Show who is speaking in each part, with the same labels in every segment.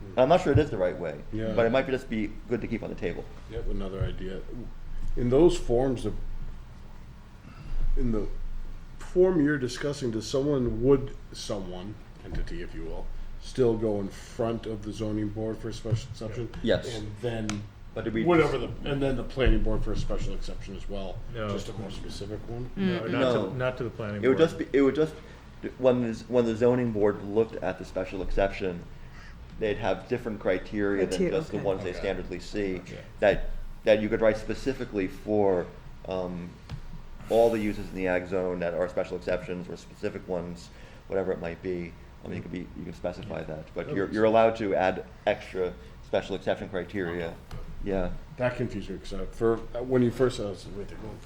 Speaker 1: And I'm not sure it is the right way,
Speaker 2: Yeah.
Speaker 1: but it might just be good to keep on the table.
Speaker 2: Yep, another idea. In those forms of, in the form you're discussing, does someone, would someone, entity if you will, still go in front of the zoning board for a special exception?
Speaker 1: Yes.
Speaker 2: And then,
Speaker 1: But did we-
Speaker 2: whatever the, and then the planning board for a special exception as well?
Speaker 3: No.
Speaker 2: Just a more specific one?
Speaker 4: Mm.
Speaker 3: No, not
Speaker 1: No.
Speaker 3: to, not to the planning board.
Speaker 1: It would just be, it would just, when, this- when the zoning board looked at the special exception, they'd have different criteria than
Speaker 5: Criteria,
Speaker 1: just the
Speaker 5: okay.
Speaker 1: ones they
Speaker 2: Okay.
Speaker 1: standardly see.
Speaker 2: Gotcha.
Speaker 1: That, that you could write specifically for, um, all the uses in the ag zone that are special exceptions or specific ones, whatever it might be. I mean, you could be, you can specify that, but
Speaker 2: That
Speaker 1: you're,
Speaker 2: makes
Speaker 1: you're allowed to add extra special exception criteria,
Speaker 2: Uh-huh.
Speaker 1: yeah.
Speaker 2: That confused me, because for, when you first said, I was like, wait, they're going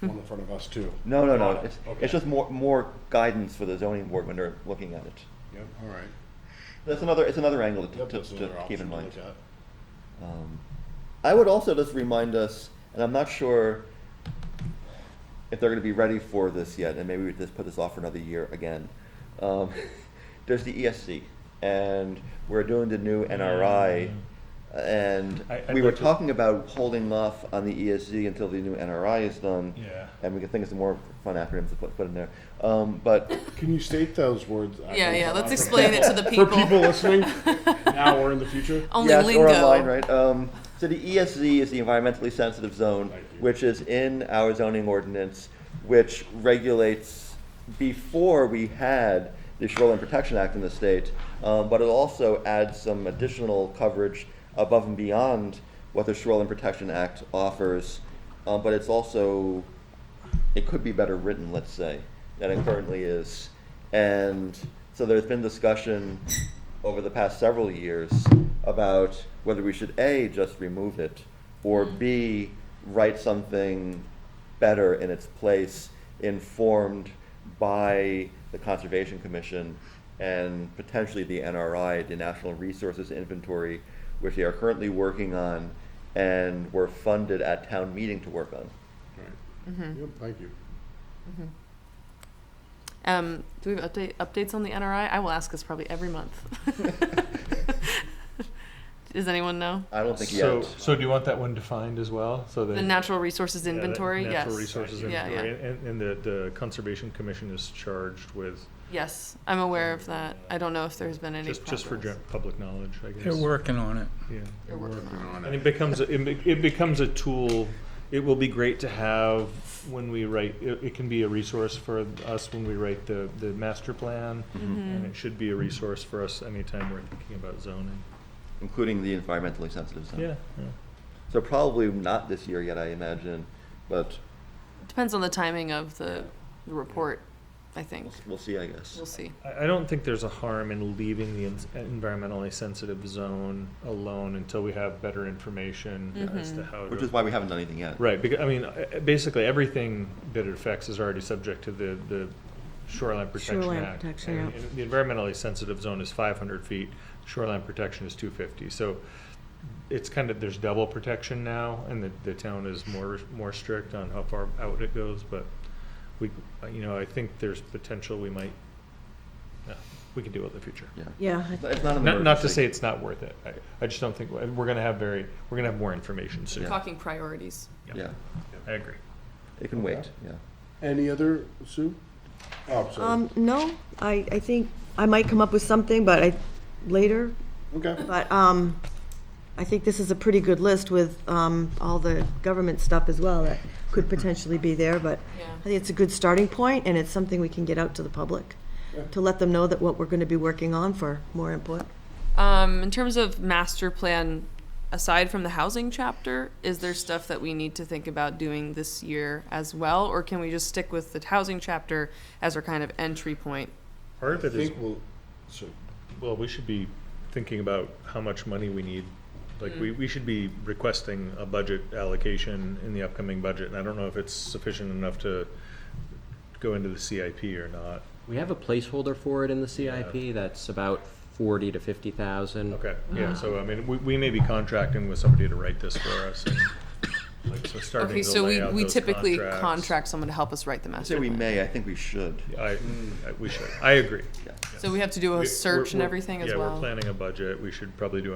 Speaker 2: for one in front of us too.
Speaker 1: No, no, no,
Speaker 2: Got it.
Speaker 1: it's,
Speaker 2: Okay.
Speaker 1: it's just more, more guidance for the zoning board when they're looking at it.
Speaker 2: Yep, all right.
Speaker 1: That's another, it's another angle to,
Speaker 2: Yep,
Speaker 1: to,
Speaker 2: that's
Speaker 1: to
Speaker 2: another
Speaker 1: keep in
Speaker 2: option to
Speaker 1: mind.
Speaker 2: look at.
Speaker 1: I would also just remind us, and I'm not sure if they're going to be ready for this yet, and maybe we just put this off for another year again. Um, there's the ESC, and we're doing the new NRI, and
Speaker 3: I- I'd
Speaker 1: we were
Speaker 3: like to-
Speaker 1: talking about holding off on the ESC until the new NRI is done.
Speaker 3: Yeah.
Speaker 1: And we can think of some more fun acronyms to put, put in there. Um, but
Speaker 2: Can you state those words?
Speaker 4: Yeah, yeah. Let's
Speaker 2: For
Speaker 4: explain it to the people.
Speaker 2: people listening now or in the future.
Speaker 4: Only
Speaker 1: yes,
Speaker 4: lingo.
Speaker 1: or online, right? Um, so the ESZ is the environmentally sensitive zone,
Speaker 2: Thank you.
Speaker 1: which is in our zoning ordinance, which regulates. Before we had the Shoreline Protection Act in the state, um, but it also adds some additional coverage above and beyond what the Shoreline Protection Act offers. Um, but it's also it could be better written, let's say, than it currently is. And so there's been discussion over the past several years about whether we should A, just remove it, or B, write something better in its place, informed by the Conservation Commission and potentially the NRI, the National Resources Inventory, which they are currently working on and were funded at town meeting to work on.
Speaker 2: Yep, thank you.
Speaker 4: Um, do we have update, updates on the NRI? I will ask this probably every month. Does anyone know?
Speaker 1: I don't think
Speaker 3: So,
Speaker 1: yet.
Speaker 3: so do you want that one defined as well, so that?
Speaker 4: The natural resources
Speaker 3: Yeah, that
Speaker 4: inventory, yes.
Speaker 3: Natural resources
Speaker 4: Yeah,
Speaker 3: inventory,
Speaker 4: yeah.
Speaker 3: and, and the, the Conservation Commission is charged with,
Speaker 4: Yes, I'm aware of that. I don't know if there's been any
Speaker 3: uh, just, just for
Speaker 4: progress.
Speaker 3: gen- public knowledge, I guess.
Speaker 6: They're working on it.
Speaker 3: Yeah.
Speaker 4: They're working on it.
Speaker 3: And it becomes, a- it be- it becomes a tool, it will be great to have when we write, it, it can be a resource for us when we write the, the master plan,
Speaker 4: Mm-hmm.
Speaker 3: and it should be a resource for us anytime we're thinking about zoning.
Speaker 1: including the environmentally sensitive zone.
Speaker 3: Yeah, yeah.
Speaker 1: So probably not this year yet, I imagine, but
Speaker 4: Depends on the timing of the, the report, I think.
Speaker 1: we'll, we'll see, I guess.
Speaker 4: We'll see.
Speaker 3: I, I don't think there's a harm in leaving the ins- environmentally sensitive zone alone until we have better information as to how to.
Speaker 1: Which is why we haven't done anything yet.
Speaker 3: Right, because, I mean, uh, uh, basically, everything that it affects is already subject to the, the Shoreline Protection
Speaker 5: Shoreline
Speaker 3: Act.
Speaker 5: Protection,
Speaker 3: And The environmentally sensitive zone is five hundred feet, shoreline protection is two fifty, so it's kind of, there's double protection now, and the, the town is more, more strict on how far out it goes, but we, uh, you know, I think there's potential we might, no, we can do it in the future.
Speaker 1: Yeah.
Speaker 5: Yeah,
Speaker 1: It's not- it's not an
Speaker 3: Not, not to
Speaker 1: emergency.
Speaker 3: say it's not worth it, I, I just don't think, we're gonna have very, we're gonna have more information soon.
Speaker 4: Talking priorities.
Speaker 1: Yeah,
Speaker 3: I agree.
Speaker 1: it can wait, yeah.
Speaker 2: Any other, Sue? Oh, sorry.
Speaker 5: um, no, I, I think I might come up with something, but I, later,
Speaker 2: okay.
Speaker 5: but, um, I think this is a pretty good list with, um, all the government stuff as well that could potentially be there, but
Speaker 4: Yeah.
Speaker 5: I think it's a good starting point, and it's something we can get out to the public, to let them know that what we're gonna be working on for more input.
Speaker 4: Um, in terms of master plan, aside from the housing chapter, is there stuff that we need to think about doing this year as well? Or can we just stick with the housing chapter as our kind of entry point?
Speaker 3: Part of
Speaker 2: I
Speaker 3: it is
Speaker 2: think we'll. So,
Speaker 3: Well, we should be thinking about how much money we need. Like,
Speaker 4: Mm.
Speaker 3: we, we should be requesting a budget allocation in the upcoming budget, and I don't know if it's sufficient enough to go into the CIP or not.
Speaker 7: We have a placeholder for it in the CIP that's about forty to fifty thousand.
Speaker 3: Okay, yeah,
Speaker 4: Mm.
Speaker 3: so I mean, we, we may be contracting with somebody to write this for us, and like, so starting
Speaker 4: Okay,
Speaker 3: to
Speaker 4: so
Speaker 3: lay
Speaker 4: we,
Speaker 3: out
Speaker 4: we
Speaker 3: those
Speaker 4: typically
Speaker 3: contracts.
Speaker 4: contract someone to help us write the
Speaker 1: I say
Speaker 4: master
Speaker 1: we
Speaker 4: plan.
Speaker 1: may, I think we should.
Speaker 3: I, I- we should, I agree.
Speaker 4: So we have to do
Speaker 3: We-
Speaker 4: a Mm. search
Speaker 3: we're-
Speaker 4: and
Speaker 3: we're-
Speaker 4: everything as
Speaker 3: Yeah,
Speaker 4: well?
Speaker 3: we're planning a budget, we should probably do